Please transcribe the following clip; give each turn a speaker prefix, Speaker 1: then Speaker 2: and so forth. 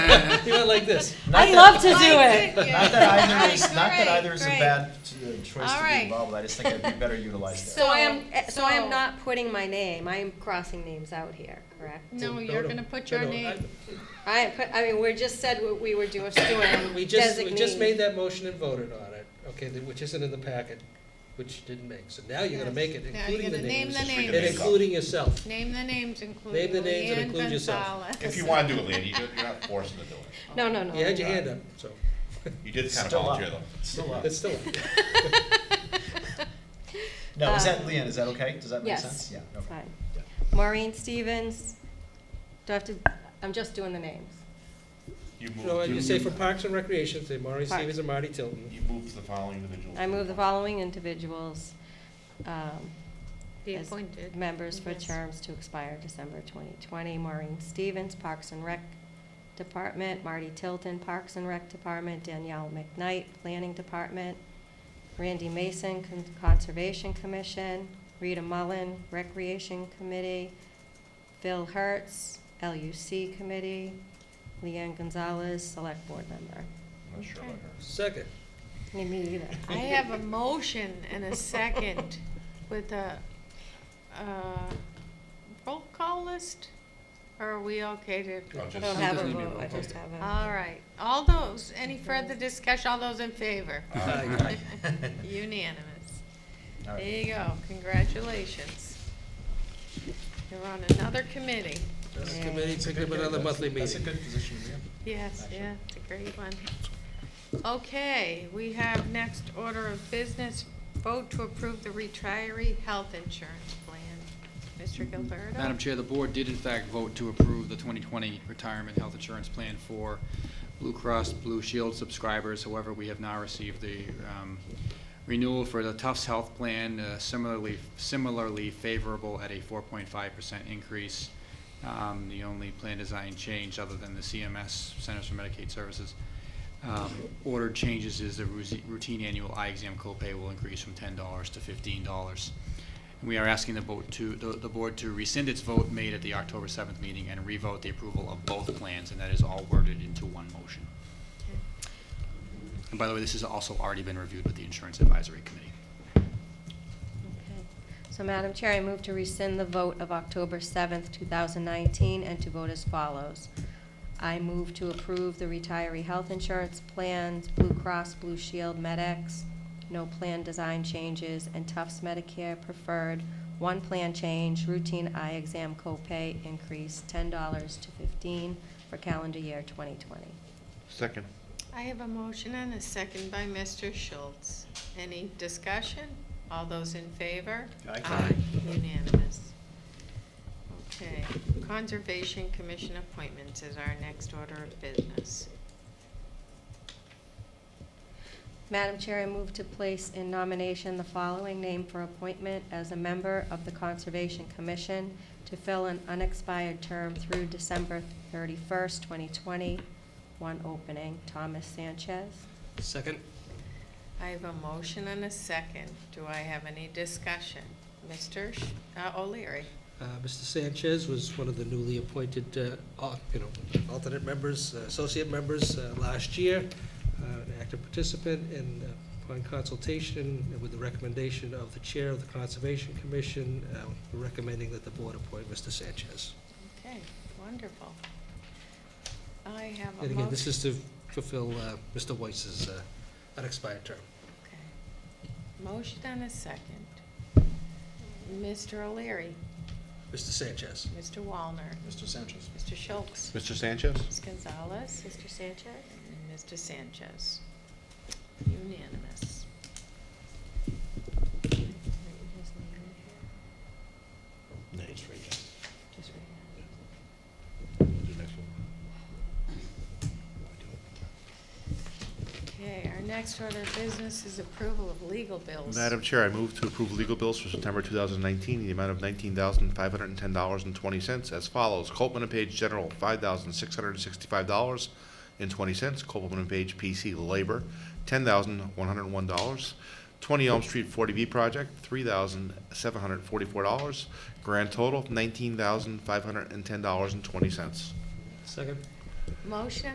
Speaker 1: like this.
Speaker 2: Not
Speaker 3: I'd
Speaker 2: that-
Speaker 3: love to do
Speaker 2: Like,
Speaker 3: it.
Speaker 2: yeah, yeah,
Speaker 3: Not
Speaker 2: yeah.
Speaker 3: that
Speaker 2: All
Speaker 3: either
Speaker 2: right,
Speaker 3: is-
Speaker 2: great, great.
Speaker 4: uh, choice
Speaker 2: All
Speaker 4: to
Speaker 2: right.
Speaker 4: be involved, I just think I'd be better utilized there.
Speaker 3: So I am, eh, so I
Speaker 2: So-
Speaker 3: am not putting my name, I am crossing names out here, correct?
Speaker 2: No, you're gonna put your name.
Speaker 3: I, put- I mean, we just said what we were doing, doing,
Speaker 1: We just, we just
Speaker 3: designee.
Speaker 1: made that motion and voted on it, okay, th- which isn't in the packet, which you didn't make. So now you're gonna
Speaker 2: Yes.
Speaker 1: make it,
Speaker 2: Now you're
Speaker 1: including the
Speaker 2: gonna name
Speaker 1: names.
Speaker 2: the
Speaker 1: And
Speaker 2: names.
Speaker 1: including yourself.
Speaker 2: Name the names, including
Speaker 1: Name the names and
Speaker 2: Leanne
Speaker 1: include yourself.
Speaker 2: Gonzalez.
Speaker 5: If you want to do it, Leanne, you don't- you're not forced to do it.
Speaker 3: No, no, no.
Speaker 1: You had your hand up, so
Speaker 5: You did kind of
Speaker 4: Still up.
Speaker 5: volunteer though.
Speaker 4: Still up.
Speaker 1: that's still,
Speaker 4: No, is that,
Speaker 2: Uh,
Speaker 3: Um,
Speaker 4: Leanne, is that okay? Does that make
Speaker 3: yes.
Speaker 4: sense? Yeah. okay.
Speaker 3: Fine.
Speaker 4: Yeah.
Speaker 3: Maureen Stevens, do I have to, I'm just doing the names.
Speaker 5: You
Speaker 1: no,
Speaker 5: moved,
Speaker 1: and
Speaker 5: you
Speaker 1: uh, you say for Parks and Recreation, say Maureen
Speaker 3: Parks.
Speaker 1: Stevens and Marty Tilton.
Speaker 5: you moved the following individuals.
Speaker 3: I move the following individuals, um,
Speaker 2: Be
Speaker 3: as
Speaker 2: appointed.
Speaker 3: members for
Speaker 2: Yes.
Speaker 3: terms to expire December 2020. Maureen Stevens, Parks and Rec Department, Marty Tilton, Parks and Rec Department, Danielle McKnight, Planning Department, Randy Mason, Con- Conservation Commission, Rita Mullen, Recreation Committee, Phil Hertz, LUC Committee, Leanne Gonzalez, Select Board Member.
Speaker 5: I'm not sure about her.
Speaker 1: Second,
Speaker 3: Me either.
Speaker 2: I have a motion and a second with a, uh, roll call list? Or are we okay to?
Speaker 5: I'll
Speaker 3: I
Speaker 5: just-
Speaker 3: don't have a
Speaker 6: Doesn't need a
Speaker 3: vote, I
Speaker 6: roll call.
Speaker 3: just have a.
Speaker 2: All right, all those, any further discussion, all those in favor?
Speaker 1: Uh, Aye.
Speaker 2: Unanimous.
Speaker 4: All
Speaker 2: There
Speaker 4: right.
Speaker 2: you go, congratulations. You're on another committee.
Speaker 1: this
Speaker 3: Yeah.
Speaker 1: committee
Speaker 4: That's a
Speaker 1: picked
Speaker 4: good-
Speaker 1: up another
Speaker 4: that's-
Speaker 1: monthly
Speaker 4: That's a
Speaker 1: meeting.
Speaker 4: good position to be in.
Speaker 2: Yes,
Speaker 4: Actually.
Speaker 2: yeah, it's a great one. Okay, we have next order of business, vote to approve the retiree health insurance plan. Mr. Gilberto?
Speaker 6: Madam Chair, the board did in fact vote to approve the 2020 retirement health insurance plan for Blue Cross Blue Shield subscribers. However, we have now received the um, renewal for the Tufts Health Plan, uh, similarly, similarly favorable at a 4.5% increase. Um, The only plan design change, other than the CMS, Centers for Medicaid Services, um, ordered changes is the rusi- routine annual eye exam copay will increase from $10 to $15. And We are asking the vote to, the, the board to rescind its vote made at the October seventh meeting and revote the approval of both plans, and that is all worded into one motion. And by the way, this has also already been reviewed with the Insurance Advisory Committee.
Speaker 3: Okay. So, Madam Chair, I move to rescind the vote of October 7th, 2019, and to vote as follows. I move to approve the retiree health insurance plans, Blue Cross Blue Shield MedX, no plan design changes, and Tufts Medicare Preferred, one plan change, routine eye exam copay increase $10 to 15 for calendar year 2020.
Speaker 5: Second.
Speaker 2: I have a motion and a second by Mr. Schultz. Any discussion? All those in favor?
Speaker 4: Aye.
Speaker 2: Unanimous. Okay, Conservation Commission appointments is our next order of business.
Speaker 3: Madam Chair, I move to place in nomination the following name for appointment as a member of the Conservation Commission to fill an unexpired term through December 31st, 2020. One opening, Thomas Sanchez.
Speaker 1: Second,
Speaker 2: I have a motion and a second. Do I have any discussion? Mr. Sh- uh, O'Leary?
Speaker 1: uh, Mr. Sanchez was one of the newly appointed, uh, al- you know, alternate members, uh, associate members uh, last year, uh, an active participant, and uh, upon consultation and with the recommendation of the Chair of the Conservation Commission, uh, recommending that the board appoint Mr. Sanchez.
Speaker 2: Okay, wonderful. I have a
Speaker 1: And again, this
Speaker 2: motion.
Speaker 1: is to fulfill uh, Mr. Weiss's uh, unexpired term.
Speaker 2: Okay. Motion and a second. Mr. O'Leary?
Speaker 1: Mr. Sanchez.
Speaker 2: Mr. Wallner?
Speaker 4: Mr. Sanchez.
Speaker 2: Mr. Schultz?
Speaker 5: Mr. Sanchez?
Speaker 2: Ms. Gonzalez?
Speaker 3: Mr. Sanchez?
Speaker 2: And Mr. Sanchez. Unanimous.
Speaker 5: No, it's right
Speaker 3: Just right here.
Speaker 2: Okay, our next order of business is approval of legal bills.
Speaker 7: Madam Chair, I move to approve legal bills for September 2019 in the amount of $19,510.20 as follows. Copman and Page General, $5,665.20. Copman and Page PC Labor, $10,101. 20 Elm Street 40B Project, $3,744. Grand total, $19,510.20.
Speaker 1: Second.
Speaker 2: Motion